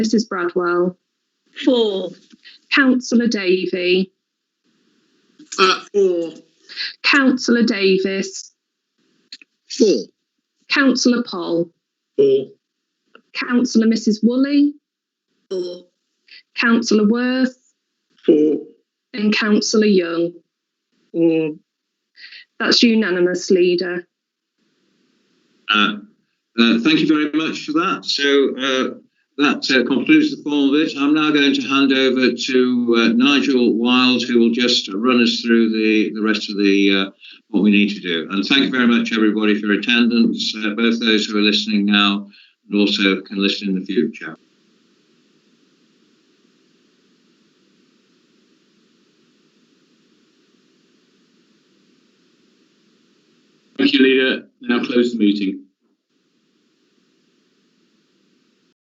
Mrs. Bradwell, Four. Councillor Davy, Uh, four. Councillor Davis, Four. Councillor Poll, Four. Councillor Mrs. Woolley, Four. Councillor Worth, Four. and Councillor Young. Four. That's unanimous, Leader. Uh, uh, thank you very much for that. So uh, that uh, concludes the formal bit. I'm now going to hand over to uh, Nigel Wild, who will just run us through the, the rest of the uh, what we need to do. And thank you very much, everybody, for your attendance, uh, both those who are listening now and also can listen in the future. Thank you, leader. Now close the meeting.